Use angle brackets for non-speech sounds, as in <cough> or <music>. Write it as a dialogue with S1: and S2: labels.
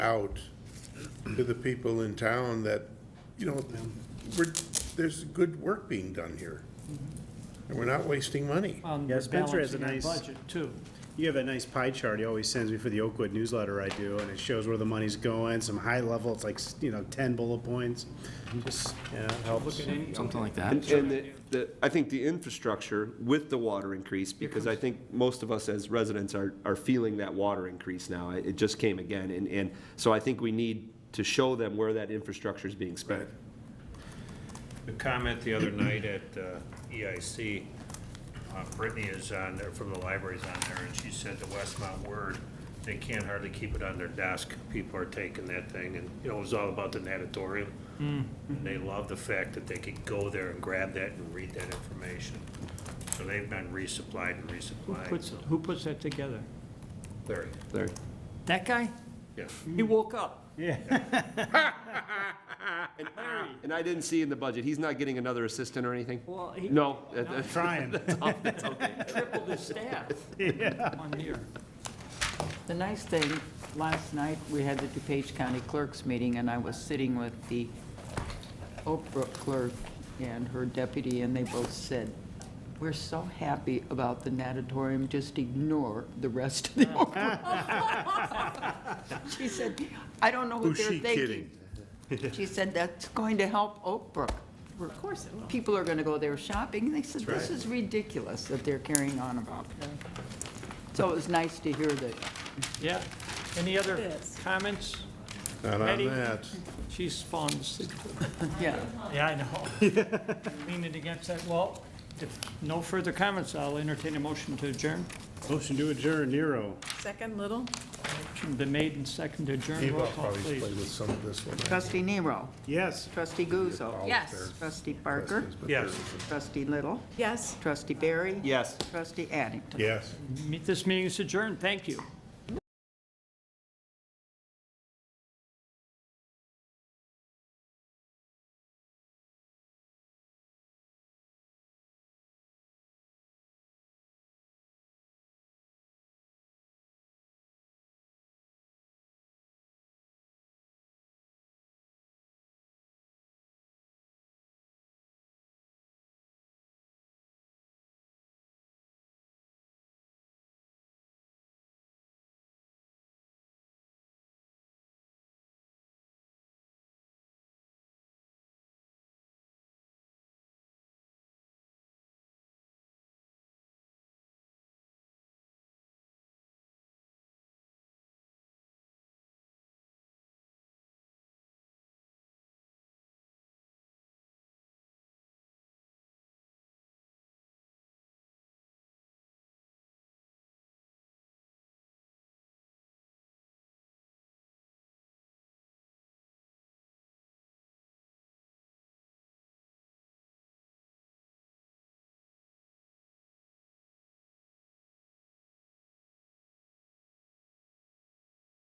S1: out to the people in town that, you know, we're, there's good work being done here. And we're not wasting money.
S2: on
S3: Yeah,
S2: the
S3: Spencer has a
S2: balancing our
S3: nice-
S2: budget too.
S3: You have that nice pie chart he always sends me for the Oakwood newsletter I do, and it shows where the money's going, some high level, it's like, you know, ten bullet points. Just, yeah, it helps.
S4: something like that.
S5: And, and the- the, I think the infrastructure with the water increase, because I think most of us as residents are, are feeling that water increase now. It it just came again, and, and so I think we need to show them where that infrastructure is being spent.
S6: The comment the other night at uh, EIC, uh, Brittany is on there, from the library's on there, and she said the Westmont Word, they can't hardly keep it on their desk. People are taking that thing, and, you know, it was all about the natatorium.
S2: Hmm.
S6: And they love the fact that they could go there and grab that and read that information. So they've been resupplied and
S2: Who
S6: resupplied,
S2: puts,
S6: so.
S2: who puts that together?
S6: Larry,
S5: Larry?
S2: That guy?
S6: yeah.
S2: He woke up.
S5: And I didn't see in the budget, he's not getting another assistant or anything?
S2: Well, he
S5: No?
S3: Trying.
S2: tripled his staff one year.
S7: The nice thing, last night, we had the DuPage County Clerks meeting, and I was sitting with the Oak Brook clerk and her deputy, and they both said, "We're so happy about the natatorium, just ignore the rest of <laughs> the Oak Brook." She said, "I don't know what
S1: Who's
S7: they're
S1: she
S7: thinking."
S1: kidding?
S7: <laughs> She said, "That's going to help Oak Brook. Of course it will. People are going to go there shopping." And they said, "This is ridiculous that they're carrying on about that." So it was nice to hear that
S2: Yeah. Any other comments?
S1: Not on
S2: Eddie?
S1: that.
S2: She's fallen asleep.
S7: Yeah,
S2: Yeah, I <laughs> know. Leaning against that wall. If no further comments, I'll entertain a motion to adjourn.
S3: Motion to adjourn, Nero.
S8: Second, Little?
S2: Motion been made and seconded to adjourn.
S1: Dave,
S2: Roll
S1: I'll
S2: call,
S1: probably play
S2: please.
S1: with some of this one.
S7: trustee Nero,
S3: Yes.
S7: trustee Guzzo.
S8: Yes.
S7: Trustee Barker,
S6: Yes.
S7: trustee Little,
S8: Yes.
S7: trustee Barry.
S5: Yes.
S7: Trustee Addington.
S1: Yes.
S2: Meet- This meeting is adjourned. Thank you.